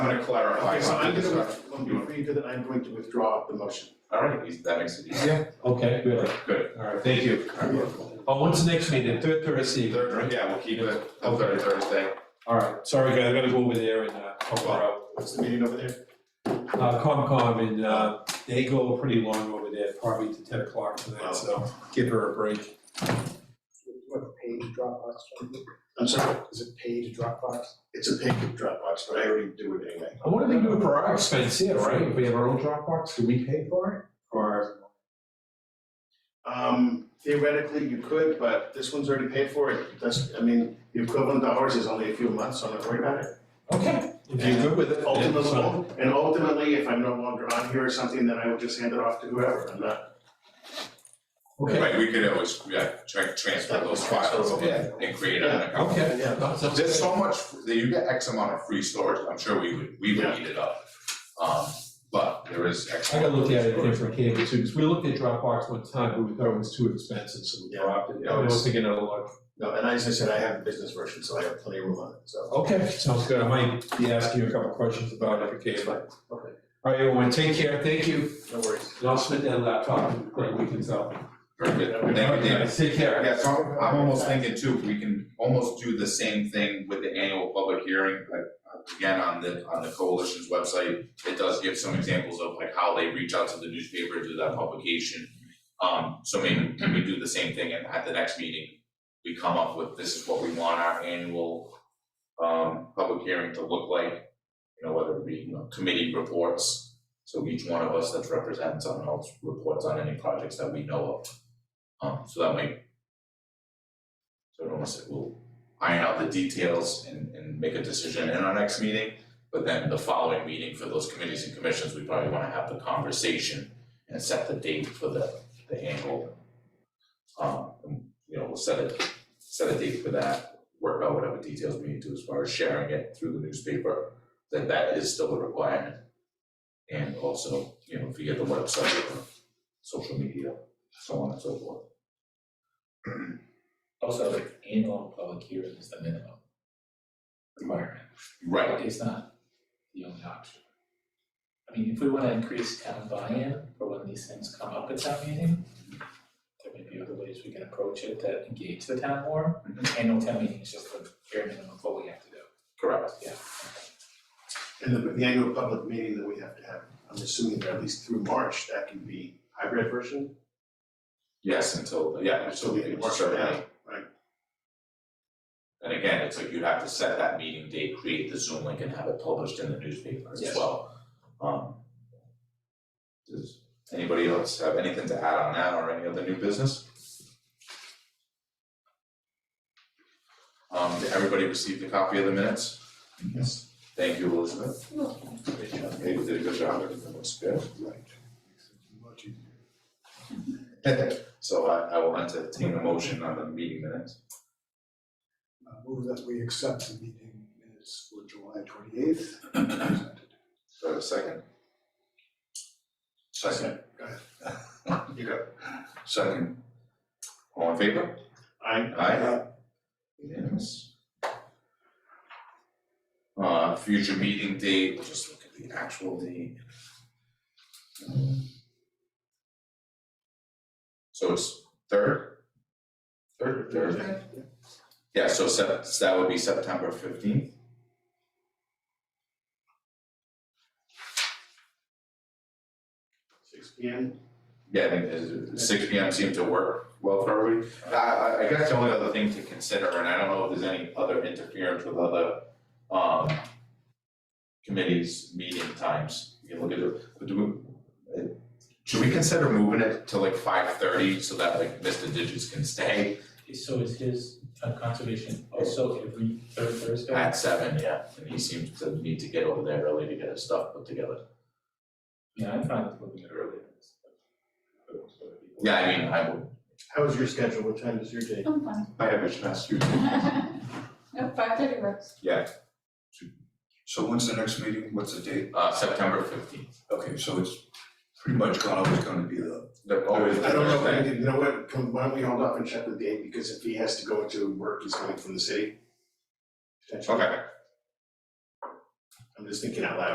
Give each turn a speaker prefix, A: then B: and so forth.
A: trying to clarify.
B: Okay, so I'm gonna,
A: Sorry.
B: with- let me read it, and I'm going to withdraw the motion.
A: All right, we- that makes it easy.
C: Yeah, okay, good.
A: Good.
C: All right, thank you. Oh, when's the next meeting? Third Thursday evening, right?
A: Third, yeah, we'll keep it till third Thursday.
C: All right, sorry, guys, I gotta go over there and, uh, help her out.
B: What's the meeting over there?
C: Uh, Comcom, and, uh, they go pretty long over there, probably to ten o'clock tonight, so give her a break.
D: What page Dropbox, from?
B: I'm sorry,
D: is it page Dropbox?
B: it's a paid Dropbox, but I already do it anyway.
C: I wonder if they do it for our expense here, right? If we have our own Dropbox, do we pay for it? Or,
B: Um, theoretically, you could, but this one's already paid for it, that's, I mean, the equivalent hours is only a few months, so I'm not worried about it.
C: okay, if you're good with it. then it's fine.
B: Ultimately, and ultimately, if I'm no longer on here or something, then I will just hand it off to whoever, I'm not.
C: Okay,
A: Right, we could always, yeah, tra- transfer those files
C: Yeah.
A: and create an account.
C: okay.
B: Yeah.
C: That's- that's-
A: There's so much, you get X amount of free storage, I'm sure we would, we would eat it up. Um, but there is X.
C: I gotta look at it
A: amount of
C: different cable too, because we looked at Dropbox one time, but we thought it was too expensive, so we
B: Yeah.
C: dropped it. I was thinking of like,
B: No, and as I said, I have the business version, so I have plenty of room on it, so.
C: okay, sounds good, I might be asking you a couple questions about it, okay, but.
B: Okay.
C: All right, everyone, take care, thank you,
B: No worries.
C: and I'll split that laptop, great weekend's out.
A: Very good, thank you, David.
C: Take care.
A: Yeah, so I'm, I'm almost thinking too, we can almost do the same thing with the annual public hearing, like, uh, again, on the, on the coalition's website. It does give some examples of like how they reach out to the newspaper, do that publication. Um, so maybe we do the same thing and at the next meeting, we come up with this is what we want our annual um, public hearing to look like. You know, whether it be, you know, committee reports, so each one of us that's represented someone else reports on any projects that we know of. Um, so that might so it almost will iron out the details and, and make a decision in our next meeting. But then the following meeting for those committees and commissions, we probably wanna have the conversation and set the date for the, the annual. Um, and, you know, we'll set a, set a date for that, work out whatever details we need to as far as sharing it through the newspaper, that that is still a requirement. And also, you know, if you get the website or social media, so on and so forth.
E: Also, like annual public hearing is the minimum requirement.
A: Right,
E: It's not the only option. I mean, if we wanna increase town buy-in for when these things come up at town meeting, there may be other ways we can approach it that engage the town more. Annual town meeting is just the bare minimum of what we have to do.
A: correct.
B: And the, the annual public meeting that we have to have, I'm assuming that at least through March, that can be hybrid version,
A: Yes, until, yeah, until
B: so
A: we
B: we can
A: can
B: work
A: start
B: it out.
A: that. And again, it's like you'd have to set that meeting date, create the Zoom link and have it published in the newspaper as
B: Yes.
A: well. Um. Does anybody else have anything to add on that or any other new business? Um, did everybody received a copy of the minutes?
B: Yes.
A: Thank you, Elizabeth. David did a good job, everything looks good. So I, I will entertain a motion on the meeting minutes.
D: Uh, Move that we accept the meeting minutes for July twenty-eighth.
A: Do I have a second? Second.
B: You go.
A: Second. All in favor?
B: I,
A: Aye. Unanimous. Uh, future meeting date, we'll just look at the actual date. Um, So it's third? Third or Thursday? Yeah, so Sep- so that would be September fifteenth.
B: six P M,
A: Yeah, I think it's- six P M seemed to work well for everybody. I, I, I guess the only other thing to consider, and I don't know if there's any other interference with other, um, committees, meeting times, you can look at it, but do we, uh, should we consider moving it to like five thirty so that like Mr. Digits can stay
E: So is his uh, conservation also every third Thursday?
A: at seven, yeah? And he seems to need to get over there early to get his stuff put together.
E: Yeah, I'm fine with moving it earlier.
A: Yeah, I mean, I would,
B: how is your schedule, what time is your day?
F: I'm fine.
A: I have a chance to.
F: No, five thirty works.
G: So when's the next meeting? What's the date?
A: Uh, September fifteenth,
G: Okay, so it's pretty much gone, always gonna be the,
A: they're always
B: I don't know, if
A: Thursday.
B: we can- you know what, Can- why don't we hold up and check the date, because if he has to go into work, he's coming from the city. Potentially.
A: Okay,
B: I'm just thinking out loud